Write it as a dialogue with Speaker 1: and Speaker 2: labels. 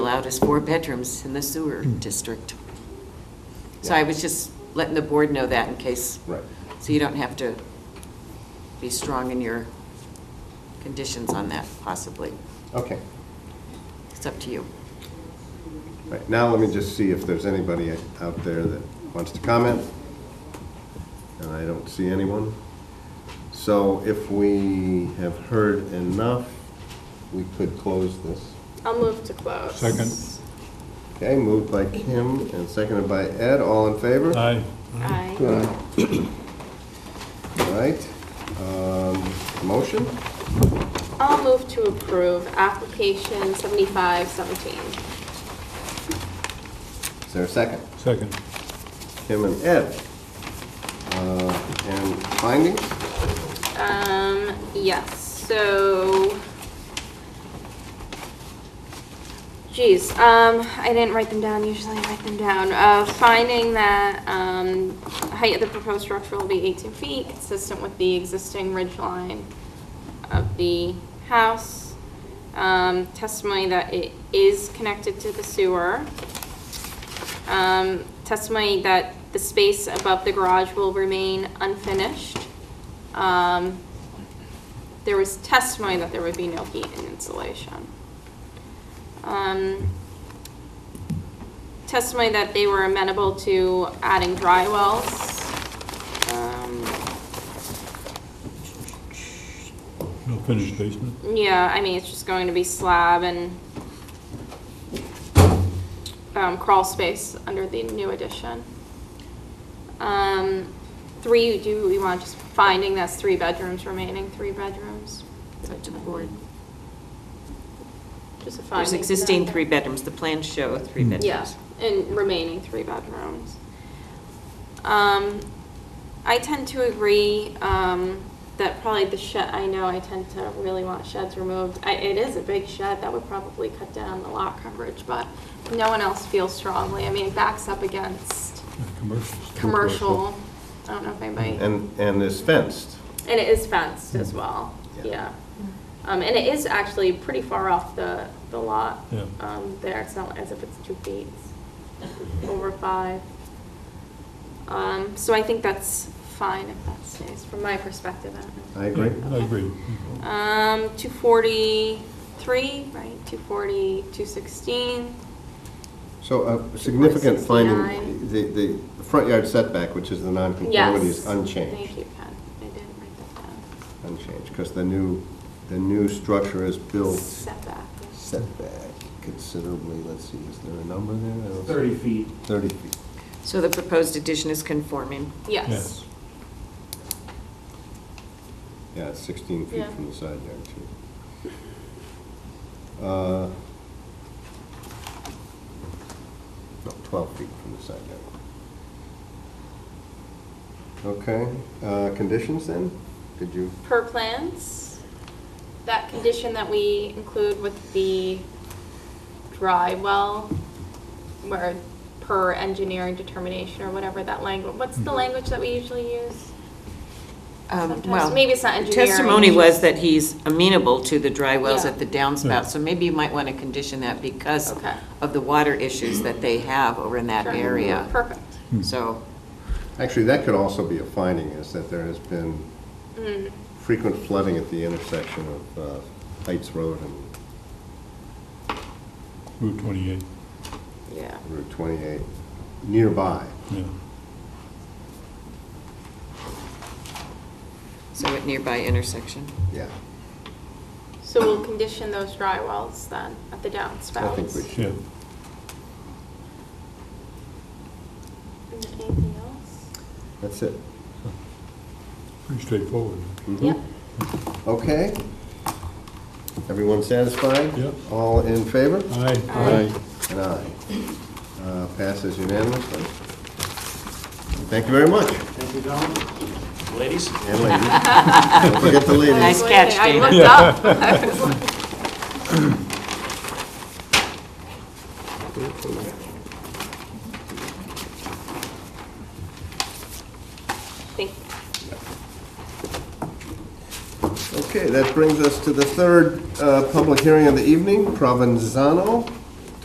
Speaker 1: allowed is four bedrooms in the sewer district. So I was just letting the board know that in case.
Speaker 2: Right.
Speaker 1: So you don't have to be strong in your conditions on that possibly.
Speaker 2: Okay.
Speaker 1: It's up to you.
Speaker 2: Right, now let me just see if there's anybody out there that wants to comment. And I don't see anyone. So if we have heard enough, we could close this.
Speaker 3: I'll move to close.
Speaker 4: Second.
Speaker 2: Okay, moved by Kim and seconded by Ed, all in favor?
Speaker 4: Aye.
Speaker 3: Aye.
Speaker 2: All right, um, motion?
Speaker 3: I'll move to approve application seventy-five seventeen.
Speaker 2: Is there a second?
Speaker 4: Second.
Speaker 2: Kim and Ed. Uh, And findings?
Speaker 3: Um, yes, so. Geez, um, I didn't write them down, usually I write them down. Uh, finding that, um, height of the proposed structure will be eighteen feet, consistent with the existing ridge line of the house. Um, testimony that it is connected to the sewer. Um, testimony that the space above the garage will remain unfinished. Um, there was testimony that there would be no heat and insulation. Um, testimony that they were amenable to adding dry wells. Um,
Speaker 4: No finished basement?
Speaker 3: Yeah, I mean, it's just going to be slab and um, crawl space under the new addition. Um, Three, do we want just finding that's three bedrooms remaining, three bedrooms?
Speaker 1: It's up to the board.
Speaker 3: Just a finding.
Speaker 1: There's existing three bedrooms. The plans show three bedrooms.
Speaker 3: Yeah, and remaining three bedrooms. Um, I tend to agree, um, that probably the shed, I know I tend to really want sheds removed. I, it is a big shed, that would probably cut down the lot coverage, but no one else feels strongly. I mean, it backs up against
Speaker 4: Commercial.
Speaker 3: commercial, I don't know if anybody.
Speaker 2: And, and is fenced.
Speaker 3: And it is fenced as well,
Speaker 2: Yeah.
Speaker 3: yeah. Um, and it is actually pretty far off the, the lot.
Speaker 4: Yeah.
Speaker 3: Um, there, it's not as if it's two feet, it's over five. Um, so I think that's fine if that stays, from my perspective. I don't know.
Speaker 2: I agree.
Speaker 4: I agree.
Speaker 3: Um, two forty-three, right, two forty, two sixteen,
Speaker 2: So a significant finding,
Speaker 3: 69.
Speaker 2: the, the front yard setback, which is the
Speaker 3: yes.
Speaker 2: nonconformity, is
Speaker 3: Thank
Speaker 2: unchanged.
Speaker 3: you, Ken, I didn't write that down.
Speaker 2: Unchanged, because the new, the new structure is built
Speaker 3: Setback.
Speaker 2: setback considerably, let's see, is there a number there? I don't see-
Speaker 5: 30 feet.
Speaker 2: Thirty feet.
Speaker 1: So the proposed addition is conforming.
Speaker 3: Yes.
Speaker 2: Yeah, it's sixteen feet
Speaker 3: Yeah.
Speaker 2: from the side yard, too. Uh, No, twelve feet from the side yard. Okay, uh, conditions then? Did you?
Speaker 3: per plans, that condition that we include with the dry well, where per engineering determination or whatever that language, what's
Speaker 2: Mm-hmm.
Speaker 3: the language that we usually use?
Speaker 1: Um,
Speaker 3: Sometimes-
Speaker 1: well,
Speaker 3: maybe it's not
Speaker 1: the
Speaker 3: engineering,
Speaker 1: Testimony
Speaker 3: it's
Speaker 1: was
Speaker 3: just-
Speaker 1: that he's amenable to the dry wells
Speaker 3: Yeah.
Speaker 1: at the downspout,
Speaker 4: Yeah.
Speaker 1: so maybe you might want to condition that because
Speaker 3: Okay.
Speaker 1: of the water issues that they have over in that
Speaker 3: Sure. Hmm.
Speaker 1: area.
Speaker 3: Perfect.
Speaker 1: So,
Speaker 2: Actually, that could also be a finding, is that there has been frequent flooding at the intersection of uh, Heights Road and
Speaker 4: Route 28,
Speaker 3: Yeah.
Speaker 2: Route 28 nearby.
Speaker 4: yeah.
Speaker 1: so at nearby intersection.
Speaker 2: Yeah,
Speaker 3: So we'll condition those dry wells then at the downspouts.
Speaker 2: I think we should.
Speaker 4: Yeah.
Speaker 3: And Anything else?
Speaker 2: That's it.
Speaker 4: Pretty straightforward.
Speaker 2: Mhm.
Speaker 3: Yep.
Speaker 2: Okay. Everyone satisfied?
Speaker 4: Yep.
Speaker 2: All in favor?
Speaker 4: Aye.
Speaker 3: Aye.
Speaker 2: An aye. Uh, Passes unanimously. Thank you very much.
Speaker 5: Thank you, gentlemen. Ladies?
Speaker 2: And ladies. Don't forget the ladies.
Speaker 1: Nice catch,
Speaker 3: I
Speaker 1: Dana.
Speaker 3: looked up. I was like- Thank you.
Speaker 2: Okay, that brings us to the third uh, public hearing of the evening, Provenzano